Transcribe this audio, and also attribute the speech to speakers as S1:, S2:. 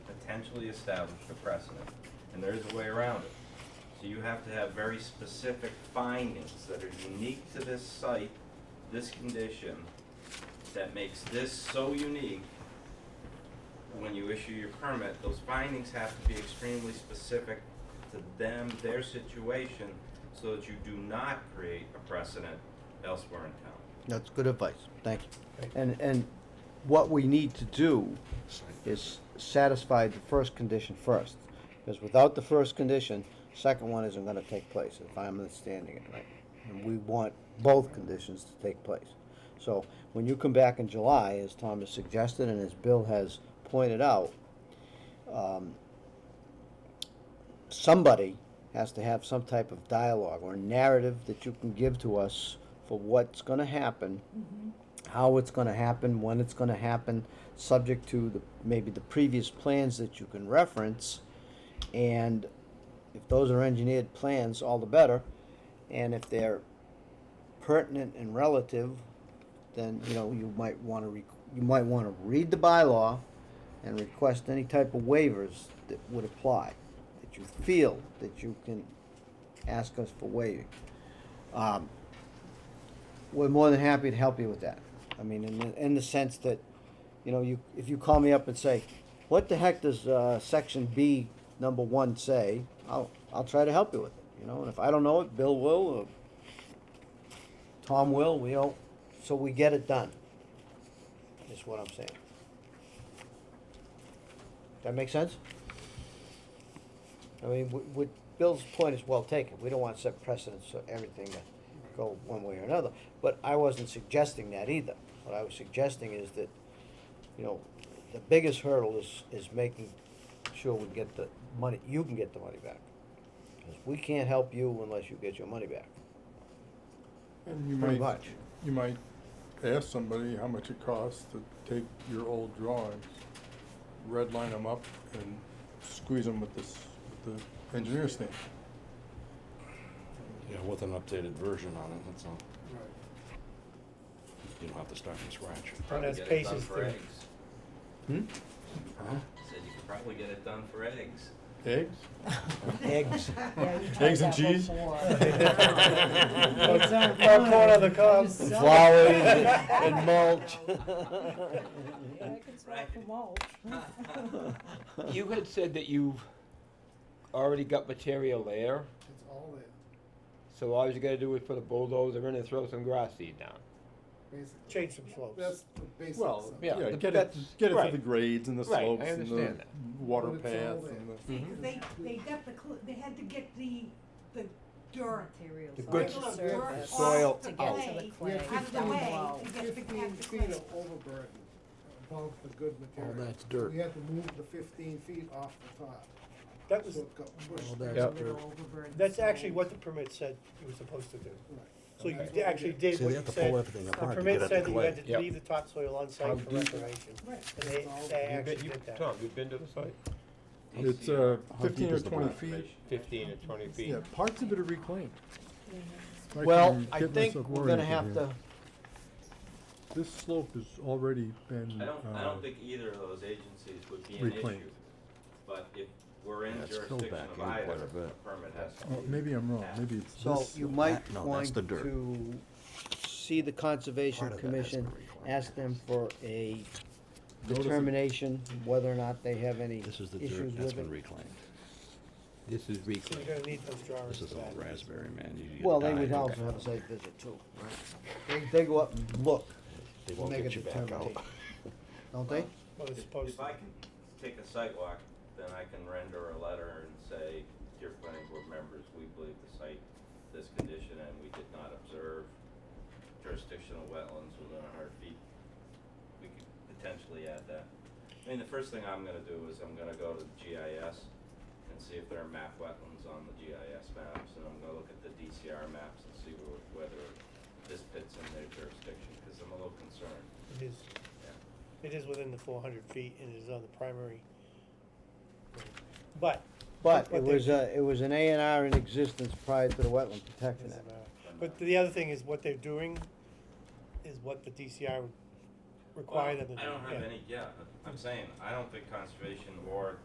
S1: potentially established a precedent, and there is a way around it. So you have to have very specific findings that are unique to this site, this condition, that makes this so unique. When you issue your permit, those findings have to be extremely specific to them, their situation, so that you do not create a precedent elsewhere in town.
S2: That's good advice, thank you. And, and what we need to do is satisfy the first condition first. Because without the first condition, second one isn't gonna take place, if I'm understanding it right. And we want both conditions to take place. So when you come back in July, as Tom has suggested and as Bill has pointed out, um, somebody has to have some type of dialogue or narrative that you can give to us for what's gonna happen, how it's gonna happen, when it's gonna happen, subject to the, maybe the previous plans that you can reference. And if those are engineered plans, all the better. And if they're pertinent and relative, then, you know, you might wanna re- you might wanna read the bylaw and request any type of waivers that would apply, that you feel that you can ask us for waiving. Um, we're more than happy to help you with that. I mean, in the, in the sense that, you know, you, if you call me up and say, what the heck does, uh, section B, number one say? I'll, I'll try to help you with it, you know, and if I don't know it, Bill will, or Tom will, we all, so we get it done, is what I'm saying. That make sense? I mean, w- w Bill's point is well taken, we don't want to set precedents for everything to go one way or another, but I wasn't suggesting that either. What I was suggesting is that, you know, the biggest hurdle is, is making sure we get the money, you can get the money back. 'Cause we can't help you unless you get your money back,
S3: And you
S2: pretty
S3: might,
S2: much.
S3: you might ask somebody how much it costs to take your old drawings, redline them up and squeeze them with this, with the engineer stamp.
S4: Yeah, with an updated version on it, that's all. You don't have to start from scratch.
S1: Probably
S5: that's
S1: get it done
S5: Pace's
S1: for
S5: thing.
S1: eggs.
S2: Hmm?
S1: Said you could probably get it done for eggs.
S3: Eggs?
S2: Eggs.
S6: Yeah, you tried
S3: Eggs and
S6: that
S3: cheese?
S6: before.
S5: Eggs on
S6: Popcorn
S5: corn.
S6: on the cob.
S5: You suck.
S2: Flowers and mulch.
S6: Yeah, I can swap them out.
S7: You had said that you've already got material there,
S8: It's all there,
S7: so all you gotta do is put a bulldozer in and throw some grass seed down.
S8: basically.
S5: Change some slopes.
S8: That's the basics.
S3: Well,
S8: of it.
S7: yeah,
S3: yeah,
S7: the-
S3: get it,
S7: that's-
S3: get it to
S7: right.
S3: the grades and the
S7: Right, I
S3: slopes and the
S7: understand that.
S3: water
S8: But it's all
S3: paths
S8: there.
S3: and the.
S2: Mm-hmm.
S6: See, 'cause they, they got the, cl- they had to get the, the dirt.
S7: The
S6: off
S7: good
S6: the
S8: s-
S6: dirt
S8: the
S6: off
S7: soil
S6: the
S7: out.
S6: clay,
S8: We had
S6: Out of the
S8: fifteen-
S6: way to get the,
S8: Fifteen
S6: get the
S8: feet
S6: clay.
S8: of overburden above the good material.
S2: that's dirt.
S8: We had to move the fifteen feet off the top.
S5: That was,
S8: So it got pushed.
S2: that's
S8: back.
S2: dirt.
S5: that's actually what the permit said you were supposed to do.
S8: Right.
S5: So
S8: And
S5: you
S8: that's
S5: d-
S8: what we
S5: actually
S8: did.
S5: did
S2: So
S5: what
S2: they
S5: you
S2: have to pull
S5: said.
S2: everything
S5: The
S2: apart to
S5: permit
S2: get at
S5: said
S2: the
S5: that you had to
S7: Yep.
S5: leave the topsoil on site for restoration.
S8: Right.
S5: And they,
S8: It's all
S5: they
S8: there.
S5: actually did that.
S7: Tom, you've been to the site?
S3: It's
S1: Yeah.
S3: uh,
S2: How
S3: fifteen
S2: deep
S3: or
S2: is the
S3: twenty
S2: black?
S3: feet,
S7: Fifteen or twenty feet.
S3: yeah, parts of it are reclaimed.
S6: Mm-hmm.
S3: I
S2: Well,
S3: can
S2: I
S3: get
S2: think
S3: myself
S2: we're gonna
S3: oriented
S2: have
S3: here.
S2: to,
S3: This slope has already been,
S1: I don't, I
S3: uh,
S1: don't think either of those agencies would be an issue,
S3: Reclaimed.
S1: but if we're in
S4: Yeah, it's filled
S1: jurisdiction
S4: back
S1: of
S4: in quite
S1: either,
S4: a
S1: the
S4: bit.
S1: permit has to
S3: oh,
S1: be.
S3: maybe I'm wrong, maybe it's this.
S2: so you might
S4: no, that's
S2: want
S4: the dirt.
S2: to see the Conservation
S4: Part of that has
S2: Commission,
S4: to be reclaimed.
S2: ask them for a
S3: Notice it-
S2: determination whether or not they have any
S4: This
S2: issues
S4: is the
S2: with it.
S4: dirt that's been reclaimed.
S7: This is
S5: So
S7: reclaimed.
S5: you're gonna need those drawings
S4: This is
S5: for
S4: all
S5: that.
S4: raspberry, man. You- you
S2: Well, they
S4: die.
S2: would also have a site visit too, right? They, they go up and look,
S4: They won't
S2: make a
S4: get you back out.
S2: determination, don't they?
S5: Well, it's
S1: If
S5: supposed
S1: if
S5: to.
S1: I can take a site walk, then I can render a letter and say, dear planning board members, we believe the site, this condition, and we did not observe jurisdictional wetlands within a hundred feet. We could potentially add that. I mean, the first thing I'm gonna do is I'm gonna go to the GIS and see if there are map wetlands on the GIS maps, and I'm gonna look at the DCR maps and see wh- whether this fits in their jurisdiction, cause I'm a little concerned.
S5: It is, it is within the four hundred feet and it is on the primary. But.
S2: But it
S5: what they-
S2: was a, it was an A and R in existence prior to the Wetland Protection
S5: Doesn't
S2: Act.
S5: matter. But the other thing is what they're doing is what the DCR would require them to do.
S1: Well, I don't have
S5: yeah.
S1: any, yeah, I'm saying, I don't think conservation or